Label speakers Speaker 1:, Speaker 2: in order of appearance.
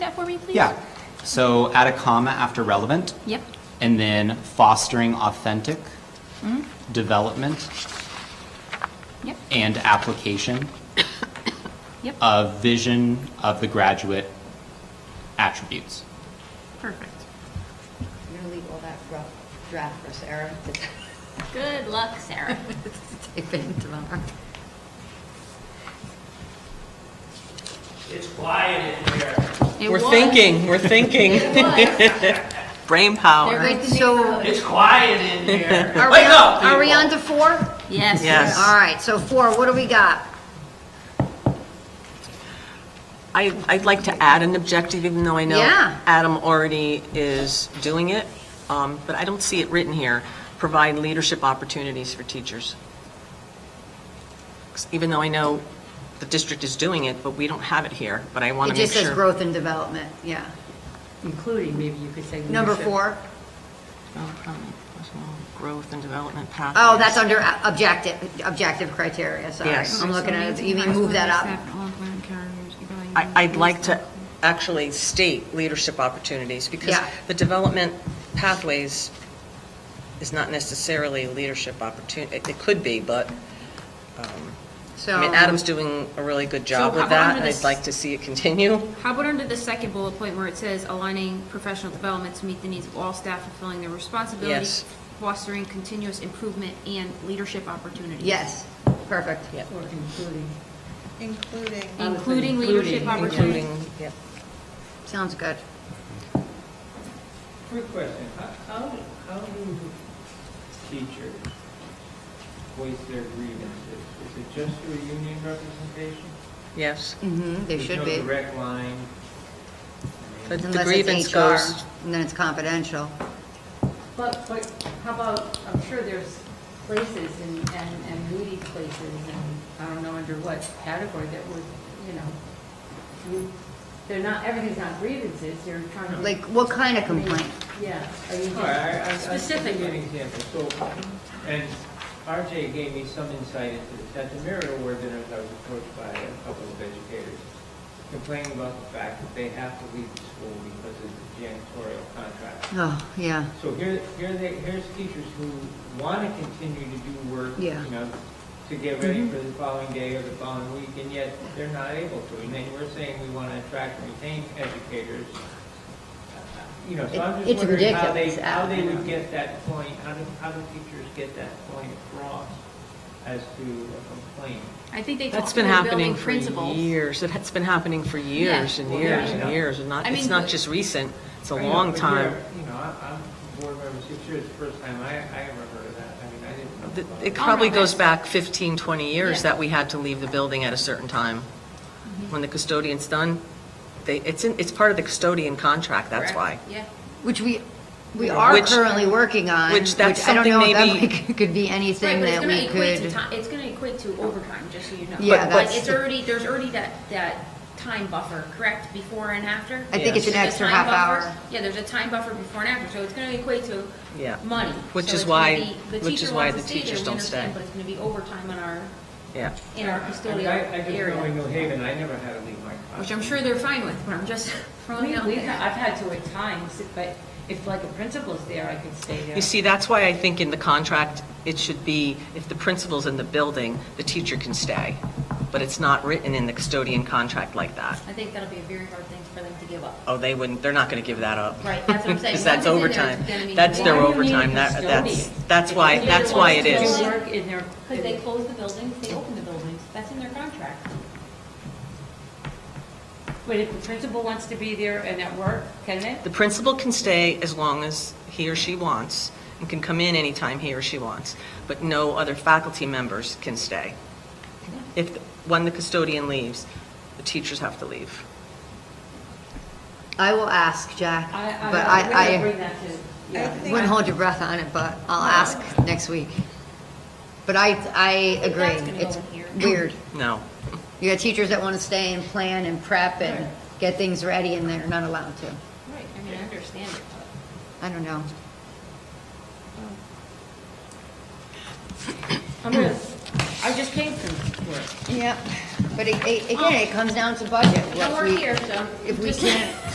Speaker 1: me, please?
Speaker 2: Yeah. So add a comma after relevant.
Speaker 1: Yep.
Speaker 2: And then fostering authentic development
Speaker 1: Yep,
Speaker 2: and application
Speaker 1: yep,
Speaker 2: of vision of the graduate attributes.
Speaker 1: perfect.
Speaker 3: I'm gonna leave all that rough draft for Sarah to
Speaker 1: Good luck, Sarah.
Speaker 3: type in tomorrow.
Speaker 4: It's quiet in here.
Speaker 1: It
Speaker 5: We're
Speaker 1: was-
Speaker 5: thinking, we're thinking.
Speaker 1: It was.
Speaker 5: Brain power.
Speaker 3: Alright, so,
Speaker 4: It's quiet in here.
Speaker 3: are we,
Speaker 4: Wake up,
Speaker 3: on- are we
Speaker 4: people.
Speaker 3: on to four?
Speaker 1: Yes.
Speaker 5: Yes.
Speaker 3: All right, so four, what do we got?
Speaker 5: I, I'd like to add an objective, even though I know
Speaker 3: Yeah.
Speaker 5: Adam already is doing it, um, but I don't see it written here. Provide leadership opportunities for teachers. 'Cause Even though I know the district is doing it, but we don't have it here, but I want
Speaker 3: It
Speaker 5: to make
Speaker 3: just says
Speaker 5: sure.
Speaker 3: growth and development, yeah.
Speaker 6: Including, maybe you could say.
Speaker 3: Number
Speaker 6: leadership.
Speaker 3: four.
Speaker 5: Oh, um, Growth and development path.
Speaker 3: Oh, that's under uh, objective, objective criteria, sorry.
Speaker 5: Yes.
Speaker 3: I'm looking at, it. you mean move that up?
Speaker 5: I, I'd like to actually state leadership opportunities, because
Speaker 3: Yeah.
Speaker 5: the development pathways is not necessarily leadership opportunity, it it could be, but,
Speaker 3: So.
Speaker 5: I mean, Adam's doing a really good job
Speaker 1: So how
Speaker 5: with
Speaker 1: about
Speaker 5: that,
Speaker 1: under
Speaker 5: and I'd
Speaker 1: this-
Speaker 5: like to see it continue.
Speaker 1: How about under the second bullet point where it says aligning professional development to meet the needs of all staff fulfilling their responsibilities,
Speaker 5: Yes.
Speaker 1: fostering continuous improvement and leadership opportunities?
Speaker 3: Yes, perfect.
Speaker 5: Yep.
Speaker 6: Or including.
Speaker 7: including.
Speaker 1: Including
Speaker 6: Including,
Speaker 1: leadership
Speaker 6: including.
Speaker 1: opportunities.
Speaker 5: Yep.
Speaker 3: Sounds good.
Speaker 4: Quick question, How- how, do- how do teachers voice their grievances? Is it just through union representation?
Speaker 5: Yes,
Speaker 3: Mm-hmm, they should
Speaker 4: There's
Speaker 3: be.
Speaker 4: no direct line? I mean,
Speaker 5: But- The
Speaker 3: Unless
Speaker 5: grievance
Speaker 3: it's HR,
Speaker 5: goes-
Speaker 3: and then it's confidential.
Speaker 6: But, but how about, I'm sure there's places and, and, and Moody's places and I don't know under what category that would, you know, you- they're not, everything's not grievances, they're trying to.
Speaker 3: Like, what kind of complaint?
Speaker 6: Yeah. are you-
Speaker 4: All right, I- I- I- I'll give you an
Speaker 6: Specifically.
Speaker 4: example. So, and RJ gave me some insight into this. At the Merrill Award dinners, I was approached by a couple of educators complaining about the fact that they have to leave the school because of the janitorial contract.
Speaker 3: Oh, yeah,
Speaker 4: So here, here they, here's teachers who want to continue to do work, you
Speaker 3: Yeah. Mm-hmm.
Speaker 4: know, to get ready for the following day or the following week, and yet they're not able to. And then we're saying we want to attract and retain educators. You know, so I'm
Speaker 3: It's
Speaker 4: just wondering how they,
Speaker 3: ridiculous,
Speaker 4: how they
Speaker 3: you know.
Speaker 4: would get that point, how do, how do teachers get that point across as to a complaint?
Speaker 1: I think they talk
Speaker 5: that's
Speaker 1: to
Speaker 5: been
Speaker 1: their building
Speaker 5: happening for
Speaker 1: principals.
Speaker 5: years, that's been happening for years and
Speaker 4: Well,
Speaker 5: years
Speaker 4: yeah,
Speaker 5: and
Speaker 4: yeah.
Speaker 5: years, and not,
Speaker 1: I
Speaker 5: it's
Speaker 1: mean,
Speaker 5: not
Speaker 1: but-
Speaker 5: just recent, it's a
Speaker 4: I know,
Speaker 5: long
Speaker 4: but
Speaker 5: time.
Speaker 4: you're- You know, I- I'm board member six years, first time I, I ever heard of that. I mean, I didn't know.
Speaker 5: Th-
Speaker 4: about
Speaker 5: It
Speaker 1: Oh, no,
Speaker 5: probably goes
Speaker 1: that's-
Speaker 5: back 15, 20 years
Speaker 1: Yeah. Mm-hmm.
Speaker 5: that we had to leave the building at a certain time. When the custodian's done, they, it's, in- it's part of the custodian contract, that's why.
Speaker 1: Yeah.
Speaker 3: which we, we are
Speaker 5: Which-
Speaker 3: currently working on.
Speaker 5: which that's something
Speaker 3: I don't know
Speaker 5: maybe-
Speaker 3: if that could be
Speaker 1: Right,
Speaker 3: anything
Speaker 1: but it's
Speaker 3: that
Speaker 1: gonna
Speaker 3: we
Speaker 1: equate to
Speaker 3: could.
Speaker 1: ti- It's gonna equate to overtime, just so you know.
Speaker 3: Yeah,
Speaker 1: Like,
Speaker 3: that's-
Speaker 1: it's already, there's already that, that time buffer, correct, before and after?
Speaker 3: I think it's an
Speaker 1: There's a
Speaker 3: extra
Speaker 1: time
Speaker 3: half
Speaker 1: buffer.
Speaker 3: hour.
Speaker 1: Yeah, there's a time buffer before and after, so it's gonna equate to
Speaker 5: Yeah.
Speaker 1: money.
Speaker 5: Which
Speaker 1: So
Speaker 5: is
Speaker 1: it's gonna
Speaker 5: why-
Speaker 1: be- the
Speaker 5: which
Speaker 1: teacher
Speaker 5: is why
Speaker 1: wants
Speaker 5: the
Speaker 1: to stay there,
Speaker 5: teachers
Speaker 1: we
Speaker 5: don't
Speaker 1: understand,
Speaker 5: stay.
Speaker 1: But it's gonna be overtime in our,
Speaker 5: Yeah.
Speaker 1: in our
Speaker 4: I mean, I,
Speaker 1: custodial
Speaker 4: I just know in
Speaker 1: area,
Speaker 4: New Haven, I never had to leave my class.
Speaker 1: which I'm sure they're fine with, but I'm just throwing
Speaker 6: We,
Speaker 1: it out
Speaker 6: we,
Speaker 1: there.
Speaker 6: I've had to at times, but if like a principal's there, I could stay there.
Speaker 5: You see, that's why I think in the contract, it should be, if the principal's in the building, the teacher can stay. But it's not written in the custodian contract like that.
Speaker 1: I think that'll be a very hard thing for them to give up.
Speaker 5: Oh, they wouldn't, they're not going to give that up.
Speaker 1: Right, that's what I'm saying.
Speaker 5: Because that's
Speaker 1: Once it's in there,
Speaker 5: overtime.
Speaker 1: it's gonna be-
Speaker 5: That's
Speaker 1: Why
Speaker 5: their
Speaker 1: do you
Speaker 6: need a
Speaker 5: overtime, that, that's,
Speaker 6: custodian?
Speaker 5: that's why,
Speaker 6: If
Speaker 5: that's why it
Speaker 6: they're the
Speaker 5: is.
Speaker 6: ones who work in their-
Speaker 1: Because they close the buildings, they open the buildings, that's in their contract.
Speaker 6: But if the principal wants to be there and at work, can they?
Speaker 5: The principal can stay as long as he or she wants and can come in anytime he or she wants, but no other faculty members can stay. If, when the custodian leaves, the teachers have to leave.
Speaker 3: I will ask, Jack,
Speaker 6: I,
Speaker 3: but
Speaker 6: I'm gonna
Speaker 3: I,
Speaker 6: bring that
Speaker 7: I
Speaker 6: to, yeah.
Speaker 3: I
Speaker 7: think-
Speaker 3: wouldn't hold your breath on it, but I'll ask next week. But I, I
Speaker 1: That's
Speaker 3: agree,
Speaker 1: gonna go
Speaker 3: it's
Speaker 1: in here.
Speaker 3: weird.
Speaker 5: No.
Speaker 3: You got teachers that want to stay and plan and prep and get things ready, and they're not allowed to.
Speaker 1: Right, I mean, I understand it, but.
Speaker 3: I don't know.
Speaker 6: I'm gonna, I just came from work.
Speaker 3: Yep. But it- it- again, it comes down to budget.
Speaker 1: Well,
Speaker 3: what
Speaker 1: Oh. we're
Speaker 3: we-
Speaker 1: here, so.
Speaker 3: If we
Speaker 1: just-
Speaker 3: can't